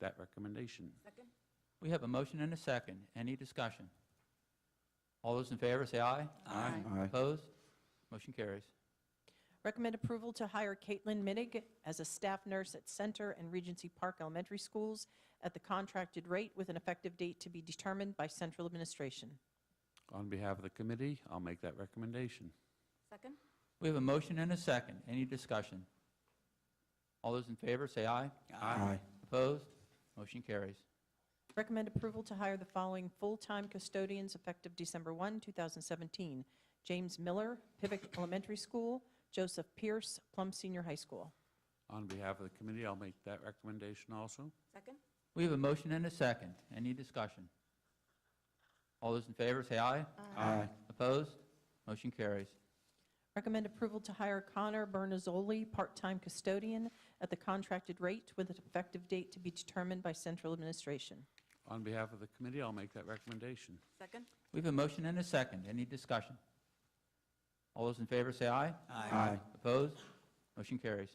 that recommendation. Second? We have a motion and a second. Any discussion? All those in favor, say aye. Aye. Opposed? Motion carries. Recommend approval to hire Caitlin Mittig as a staff nurse at Center and Regency Park Elementary Schools at the contracted rate with an effective date to be determined by central administration. On behalf of the committee, I'll make that recommendation. Second? We have a motion and a second. Any discussion? All those in favor, say aye. Aye. Opposed? Motion carries. Recommend approval to hire the following full-time custodians effective December 1, 2017. James Miller, Pivot Elementary School, Joseph Pierce, Plum Senior High School. On behalf of the committee, I'll make that recommendation also. Second? We have a motion and a second. Any discussion? All those in favor, say aye. Aye. Opposed? Motion carries. Recommend approval to hire Connor Bernazzoli, part-time custodian, at the contracted rate with an effective date to be determined by central administration. On behalf of the committee, I'll make that recommendation. Second? We have a motion and a second. Any discussion? All those in favor, say aye. Aye. Opposed? Motion carries.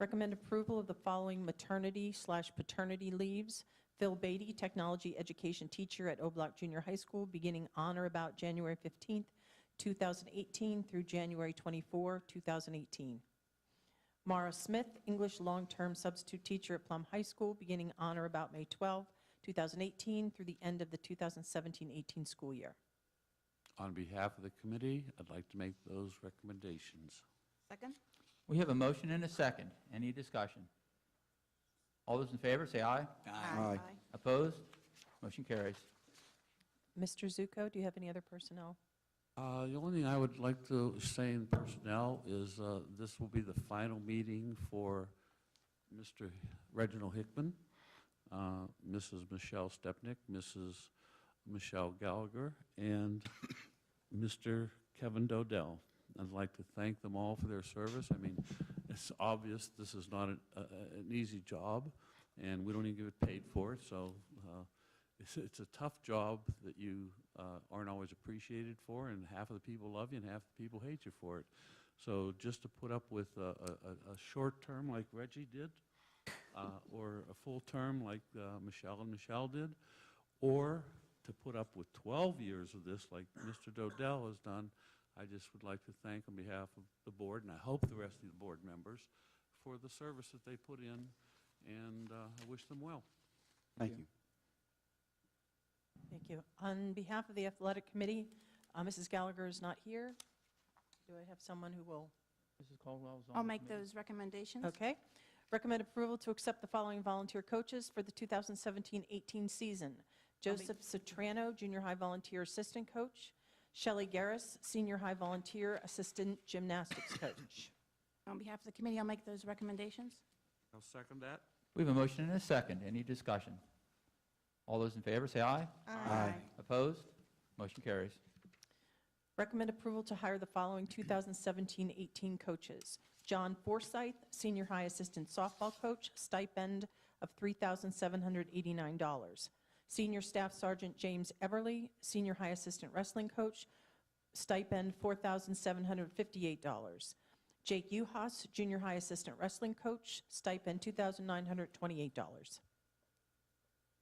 Recommend approval of the following maternity slash paternity leaves. Phil Beatty, Technology Education Teacher at O'Block Junior High School, beginning on or about January 15th, 2018 through January 24, 2018. Mara Smith, English Long-Term Substitute Teacher at Plum High School, beginning on or about May 12, 2018 through the end of the 2017-18 school year. On behalf of the committee, I'd like to make those recommendations. Second? We have a motion and a second. Any discussion? All those in favor, say aye. Aye. Opposed? Motion carries. Mr. Zuko, do you have any other personnel? Uh, The only thing I would like to say in personnel is uh, this will be the final meeting for Mr. Reginald Hickman, uh, Mrs. Michelle Stepnick, Mrs. Michelle Gallagher, and Mr. Kevin Dodell. I'd like to thank them all for their service. I mean, it's obvious this is not an a- a- an easy job, and we don't even get paid for it, so uh, it's, it's a tough job that you uh, aren't always appreciated for, and half of the people love you and half the people hate you for it. So just to put up with a, a, a- a short term like Reggie did, uh, or a full term like uh, Michelle and Michelle did, or to put up with 12 years of this like Mr. Dodell has done, I just would like to thank on behalf of the board, and I hope the rest of the board members, for the service that they put in, and uh, I wish them well. Thank you. Thank you. On behalf of the athletic committee, uh, Mrs. Gallagher is not here. Do I have someone who will? Mrs. Caldwell's on. I'll make those recommendations. Okay. Recommend approval to accept the following volunteer coaches for the 2017-18 season. Joseph Sotrano, junior high volunteer assistant coach. Shelley Garris, senior high volunteer assistant gymnastics coach. On behalf of the committee, I'll make those recommendations. I'll second that. We have a motion and a second. Any discussion? All those in favor, say aye. Aye. Opposed? Motion carries. Recommend approval to hire the following 2017-18 coaches. John Forsyth, senior high assistant softball coach, stipend of $3,789. Senior Staff Sergeant James Everly, senior high assistant wrestling coach, stipend $4,758. Jake Uhas, junior high assistant wrestling coach, stipend $2,928.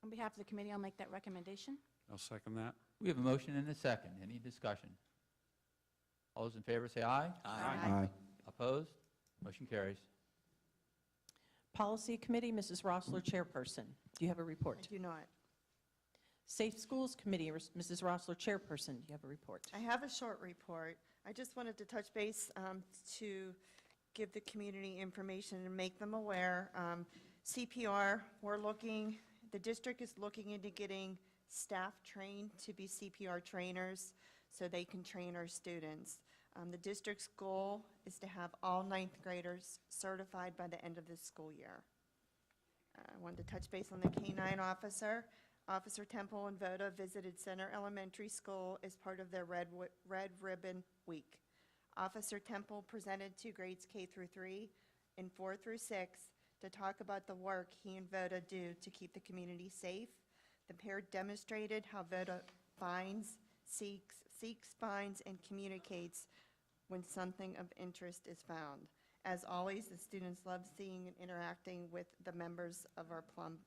On behalf of the committee, I'll make that recommendation. I'll second that. We have a motion and a second. Any discussion? All those in favor, say aye. Aye. Opposed? Motion carries. Policy Committee, Mrs. Rossler, chairperson. Do you have a report? I do not. Safe Schools Committee, Ms- Mrs. Rossler, chairperson, do you have a report? I have a short report. I just wanted to touch base um, to give the community information and make them aware. Um, CPR, we're looking, the district is looking into getting staff trained to be CPR trainers so they can train our students. Um, The district's goal is to have all ninth graders certified by the end of this school year. I wanted to touch base on the K-9 officer. Officer Temple and Voda visited Center Elementary School as part of their Red, Wi- Red Ribbon Week. Officer Temple presented to grades K through three and four through six to talk about the work he and Voda do to keep the community safe. The pair demonstrated how Voda finds, seeks, seeks, finds, and communicates when something of interest is found. As always, the students love seeing and interacting with the members of our Plum